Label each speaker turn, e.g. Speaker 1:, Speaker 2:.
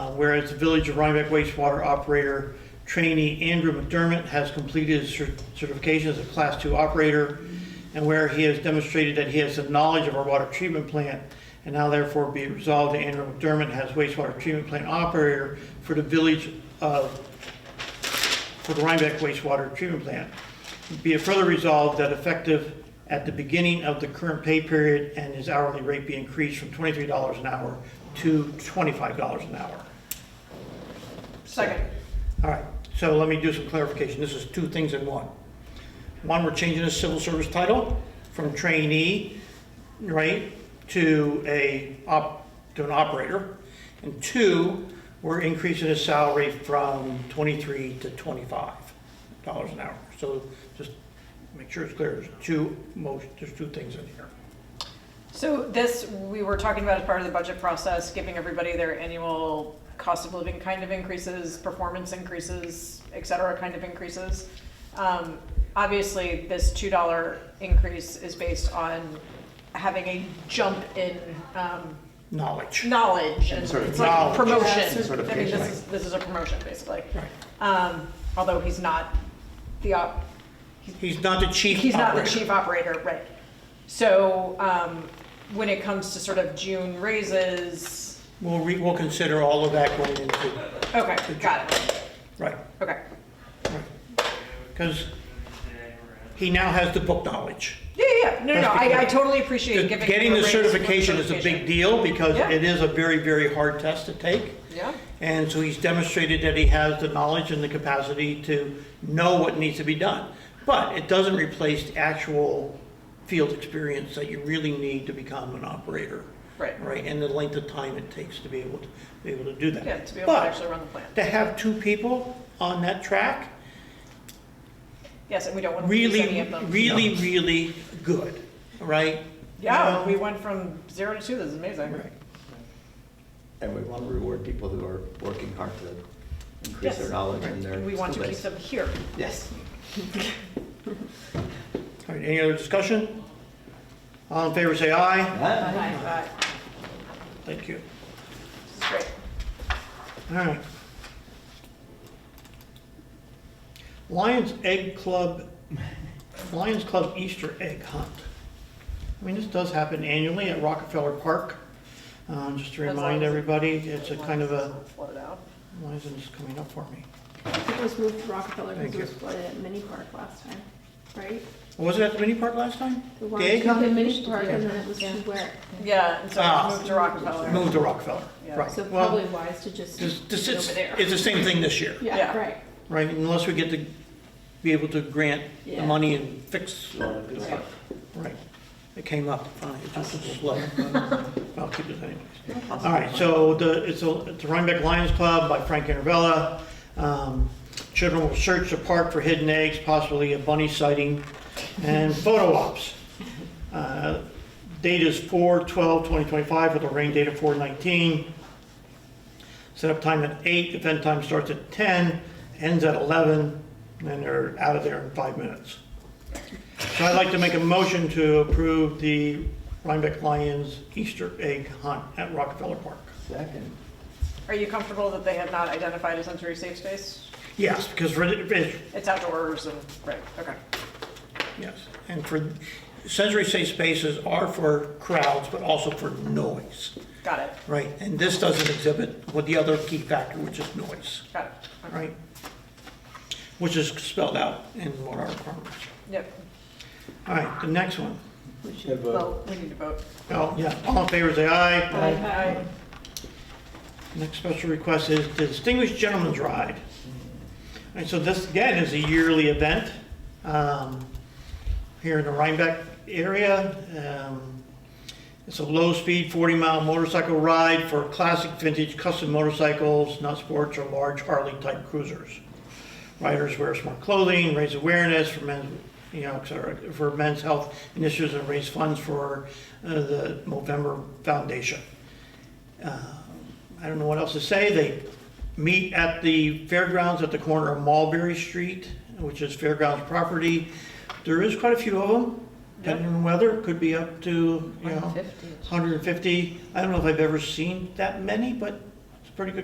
Speaker 1: Uh, whereas the Village of Rhinebeck wastewater operator trainee Andrew McDermott has completed his cer- certification as a Class II operator, and where he has demonstrated that he has the knowledge of our water treatment plant, and now therefore be it resolved that Andrew McDermott has wastewater treatment plant operator for the Village of for the Rhinebeck wastewater treatment plant. Be it further resolved that effective at the beginning of the current pay period and his hourly rate be increased from twenty-three dollars an hour to twenty-five dollars an hour.
Speaker 2: Second.
Speaker 1: All right, so let me do some clarification. This is two things in one. One, we're changing his civil service title from trainee, right, to a op, to an operator. And two, we're increasing his salary from twenty-three to twenty-five dollars an hour. So just make sure it's clear, there's two most, there's two things in here.
Speaker 2: So this, we were talking about as part of the budget process, giving everybody their annual cost of living kind of increases, performance increases, et cetera, kind of increases. Um, Obviously, this $2 increase is based on having a jump in um,
Speaker 1: Knowledge.
Speaker 2: knowledge and
Speaker 3: Sort of
Speaker 2: it's like a
Speaker 1: knowledge.
Speaker 2: promotion. I mean,
Speaker 3: Certification.
Speaker 2: this is, this is a promotion, basically.
Speaker 1: Right.
Speaker 2: Um, Although he's not the op,
Speaker 1: He's not the chief
Speaker 2: He's not the
Speaker 1: operator.
Speaker 2: chief operator, right. So, um, when it comes to sort of June raises,
Speaker 1: We'll re, we'll consider all of that going into,
Speaker 2: okay, got it,
Speaker 1: right.
Speaker 2: okay.
Speaker 1: Because he now has the book knowledge.
Speaker 2: Yeah, yeah, yeah. no, no, no, I, I totally appreciate giving.
Speaker 1: Getting
Speaker 2: him a
Speaker 1: the
Speaker 2: raise with
Speaker 1: certification is a big
Speaker 2: certification.
Speaker 1: deal because
Speaker 2: Yeah.
Speaker 1: it is a very, very hard test to take.
Speaker 2: Yeah,
Speaker 1: And so he's demonstrated that he has the knowledge and the capacity to know what needs to be done. But it doesn't replace the actual field experience that you really need to become an operator,
Speaker 2: right,
Speaker 1: right? And the length of time it takes to be able to, be able to do that.
Speaker 2: yeah, to be able to
Speaker 1: But
Speaker 2: actually run the plant.
Speaker 1: to have two people on that track,
Speaker 2: Yes, and we don't want to lose any
Speaker 1: really,
Speaker 2: of them.
Speaker 1: really, really good, right?
Speaker 2: Yeah,
Speaker 1: Um,
Speaker 2: we went from zero to two, this is amazing.
Speaker 1: Right.
Speaker 3: And we want to reward people who are working hard to increase their
Speaker 2: Yes.
Speaker 3: knowledge and their
Speaker 2: And we want to
Speaker 3: skill
Speaker 2: keep
Speaker 3: base.
Speaker 2: them here.
Speaker 3: Yes.
Speaker 1: All right, any other discussion? All in favor, say aye.
Speaker 3: Huh?
Speaker 2: Right,
Speaker 1: Thank you.
Speaker 2: This is great.
Speaker 1: All right. Lions Egg Club, Lions Club Easter Egg Hunt. I mean, this does happen annually at Rockefeller Park. Um, Just to
Speaker 2: As long
Speaker 1: remind
Speaker 2: as it-
Speaker 1: everybody, it's a kind of a,
Speaker 2: Float out.
Speaker 1: why isn't this coming up for me?
Speaker 4: It was moved to Rockefeller
Speaker 1: Thank
Speaker 4: because it was
Speaker 1: you.
Speaker 4: flooded at Mini Park last time, right?
Speaker 1: Was it at the mini park last time?
Speaker 4: The
Speaker 1: The egg
Speaker 4: The
Speaker 1: hunt?
Speaker 4: Mini Park and then it was
Speaker 2: Yeah.
Speaker 4: to where?
Speaker 2: Yeah, and so
Speaker 1: Ah.
Speaker 2: we moved to Rockefeller.
Speaker 1: Moved to Rockefeller,
Speaker 2: Yeah.
Speaker 1: right.
Speaker 4: So
Speaker 1: Well,
Speaker 4: probably wise to just
Speaker 1: this- this
Speaker 4: do it
Speaker 1: is-
Speaker 4: over there.
Speaker 1: It's the same thing this year.
Speaker 2: Yeah.
Speaker 4: Yeah, right.
Speaker 1: Right, unless we get to be able to grant the
Speaker 4: Yeah.
Speaker 1: money and fix,
Speaker 3: Right.
Speaker 1: right. It came up, uh, it just was slow. I'll keep it anyways. All right, so the, it's a, it's the Rhinebeck Lions Club by Frank Intervella. Um, Children will search the park for hidden eggs, possibly a bunny sighting, and photo ops. Uh, Date is 4/12/2025 with a rain date of 4/19. Set up time at 8, event time starts at 10, ends at 11, and they're out of there in five minutes. So I'd like to make a motion to approve the Rhinebeck Lions Easter egg hunt at Rockefeller Park.
Speaker 3: Second.
Speaker 2: Are you comfortable that they have not identified a sensory safe space?
Speaker 1: Yes, because for, the- it's-
Speaker 2: It's outdoors and, right, okay.
Speaker 1: yes, and for, sensory safe spaces are for crowds, but also for noise,
Speaker 2: Got it,
Speaker 1: right? And this doesn't exhibit what the other key factor, which is noise,
Speaker 2: got it. Okay.
Speaker 1: right? Which is spelled out in what our requirements.
Speaker 2: Yep,
Speaker 1: All right, the next one.
Speaker 4: We should
Speaker 3: Have a-
Speaker 2: well, we need to vote.
Speaker 1: Oh, yeah, all in favor, say aye.
Speaker 2: Aye.
Speaker 1: Next special request is the Distinguished Gentleman's Ride. And so this, again, is a yearly event um, here in the Rhinebeck area. Um, It's a low-speed 40-mile motorcycle ride for classic vintage custom motorcycles, not sports or large Harley-type cruisers. Riders wear smart clothing, raise awareness for men, you know, et cetera, for men's health initiatives and raise funds for uh, the Movember Foundation. Uh, I don't know what else to say. They meet at the fairgrounds at the corner of Mulberry Street, which is fairgrounds property. There is quite a few of them, depending on the weather, could be up to, you know, 150. I don't know if I've ever seen that many, but it's a pretty good